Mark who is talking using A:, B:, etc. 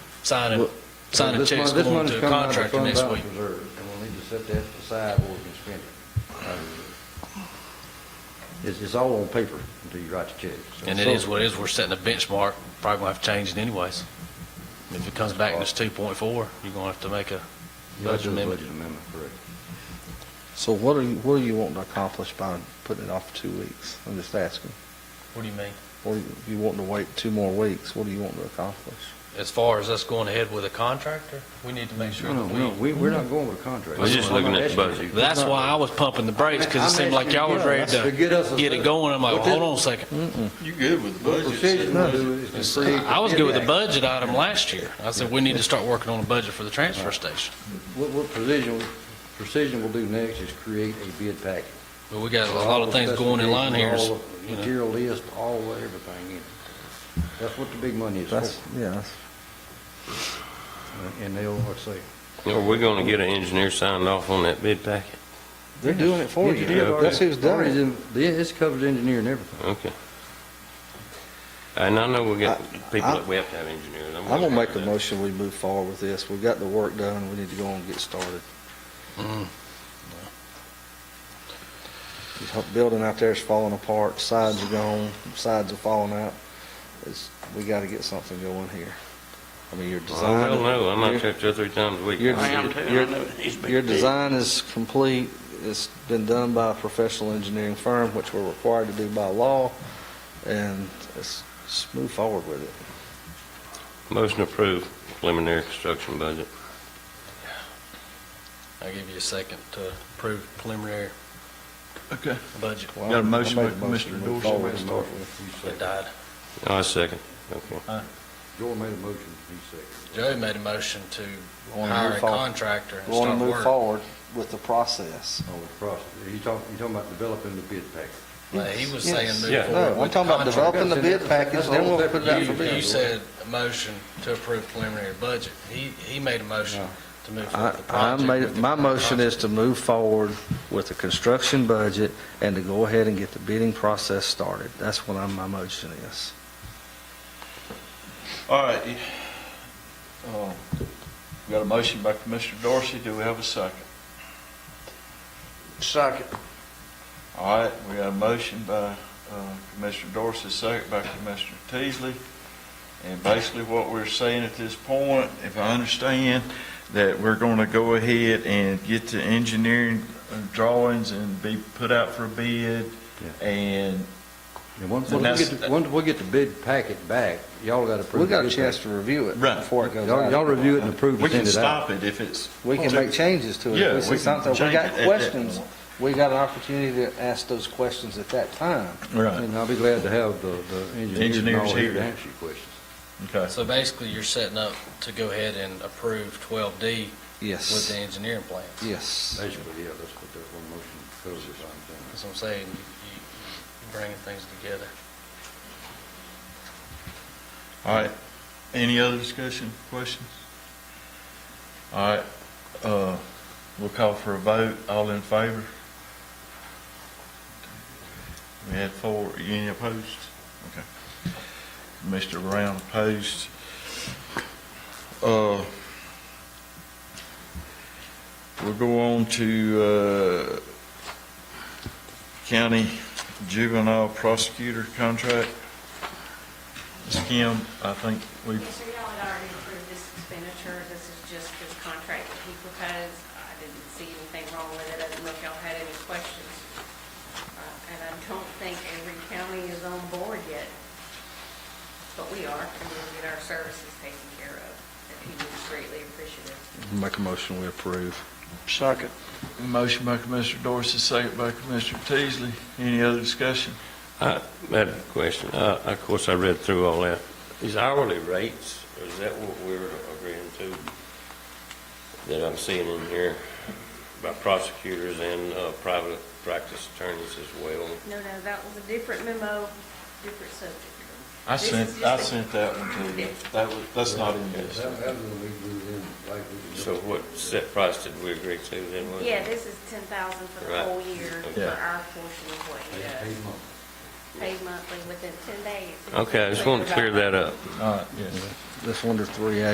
A: sign
B: Well,
A: a, sign a
B: This
A: check
B: mon-
A: going
B: this money's
A: to a
B: coming out of
A: contractor
B: fund
A: next
B: balance
A: week.
B: reserve, And we'll need to set that aside where we can spend it. out of it. It's, it's all on paper until you write the check. So-
A: And it is what it is, we're setting a benchmark, probably gonna have to change it anyways. If it comes back and it's two point four, you're gonna have to make a
B: You have to
A: budget
B: do a
A: amendment.
B: Budget amendment, correct.
C: So what are you, what are you wanting to accomplish by putting it off for two weeks? I'm just asking.
A: What do you mean?
C: Or you- you wanting to wait two more weeks? What do you want to accomplish?
A: As far as us going ahead with a contractor, we need to make sure
B: No,
A: that
B: no, no,
A: we.
B: we, we're not going with a contract.
D: We're just
B: I'm not
D: looking at the
B: asking
D: budget.
B: you.
A: That's why I was pumping the brakes, cause it seemed like y'all was ready
B: To get us a-
A: to get it going. I'm like, well, hold on a second.
D: You good with the
B: What Precision to do is to see.
A: I was good with the budget item last year. I said, we need to start working on a budget for the transfer station.
B: What, what precision, precision will do next is create a bid package.
A: But we got a lot of things going in line here,
B: All
A: so,
B: the
A: you know.
B: Material list, all of everything in it. That's what the big money is
C: That's,
B: for.
C: yeah, that's-
B: And they'll, let's see.
D: Are we gonna get an engineer signed off on that bid packet?
C: they're doing it for you.
B: Engineer already-
C: That's who's doing
B: already
C: it.
B: done- yeah, It's covered engineer and everything.
D: Okay. And I know we got people
C: I-
D: that we have to have engineers.
C: I'm gonna make a motion, we move forward with this. We've got the work done, we need to go on and get started.
D: Mm-hmm.
A: Mm.
C: This whole Building out there is falling apart, sides are gone, sides are falling out. It's, we gotta get something going here. I mean, your
D: I
C: design.
D: don't know, I'm not
C: your-
D: there two or three times a week.
C: Your,
D: I am.
C: your- your design is complete, it's been done by a professional engineering firm, which we're required to do by law, and let's, let's move forward with it.
D: Motion approved preliminary construction budget.
A: I'll give you a second to approve preliminary
E: Okay.
A: budget.
C: Well,
E: Got a
C: I
E: motion
C: made a
E: by
C: motion
E: Mr.
C: to move
E: Dorsey,
C: forward
E: made a
C: and start with-
A: It died.
D: I second, okay.
B: Joel made a motion, he seconded.
A: Joey made a motion to
C: Wanna
A: hire
C: move
A: a
C: forward.
A: contractor and
C: We wanna
A: start
C: move
A: work.
C: forward with the process.
B: Oh, the process, you talking, you talking about developing the bid package.
A: But He was saying move
D: Yes.
A: forward
C: No, I'm
A: with
C: talking about
A: the
C: developing the bid package, then we'll put it out for
A: contract. You, you
C: bid.
A: said a motion to approve preliminary budget. He, he made a motion to move forward
C: I,
A: with the
C: I
A: project.
C: made, my motion is to move forward with the construction budget and to go ahead and get the bidding process started. That's what I'm, my motion is.
E: All right. Uh, We got a motion by Commissioner Dorsey, do we have a second? Second. All right, we got a motion by uh, Commissioner Dorsey, second by Commissioner Teasley. And basically what we're saying at this point, if I understand, that we're going to go ahead and get the engineering uh, drawings and be put out for bid.
B: Yeah.
E: And,
B: And once,
E: And
B: once we
E: that's-
B: get, the- once we get the bid packet back, y'all gotta approve.
C: We got
B: the
C: a
B: bid
C: chance
B: package.
C: to review it
E: Right.
C: before it goes
B: Y'all, y'all
C: out.
B: review it and approve it,
E: we
B: send
E: can
B: it out.
E: stop it if it's.
C: We can make changes to it.
E: Yeah,
C: If
E: we
C: we see
E: can
C: something, we
E: change it
C: got
E: at that
C: questions,
E: point.
C: we got an opportunity to ask those questions at that time.
E: Right,
B: And I'll be glad to have the, the engineers and all
E: Engineers
B: here to
E: here.
B: answer your questions.
E: okay.
A: So basically, you're setting up to go ahead and approve twelve D with
C: Yes,
A: the engineering plans.
C: yes.
B: Basically, yeah, that's what that one motion covers, I'm
A: That's what I'm saying, you, you bringing things together.
E: All right, any other discussion, questions? All right, uh, we'll call for a vote, all in favor? We had four, any opposed? Okay. Mr. Brown opposed. Uh, we'll go on to, uh, county juvenile prosecutor contract. Ms. Kim, I think we
F: Mr. Yellen already approved this expenditure, this is just this contract that he proposed, I didn't see anything wrong with it, I didn't know if y'all had any questions. Uh, And I don't think every county is on board yet, but we are, and we'll get our services taken care of, and he was greatly appreciative.
C: Make a motion, we approve.
E: Second. Motion by Commissioner Dorsey, second by Commissioner Teasley. Any other discussion?
D: Uh, I had a question, uh, of course, I read through all that. Is hourly rates, is that what we're agreeing to? That I'm seeing in here by prosecutors and, uh, private practice attorneys as well?
F: No, no, that was a different memo, different subject.
E: I
F: This is
E: sent,
F: just
E: I
F: a-
E: sent that one to you. That was, that's not in this.
D: So what set price did we agree to then? wasn't it?
F: Yeah, this is ten thousand for the
D: Right.
F: whole year, for
D: Yeah.
F: our portion of what he does. Paid monthly within ten days.
D: Okay, I just want to clear that up.
E: All right, yes.
C: That's under three A.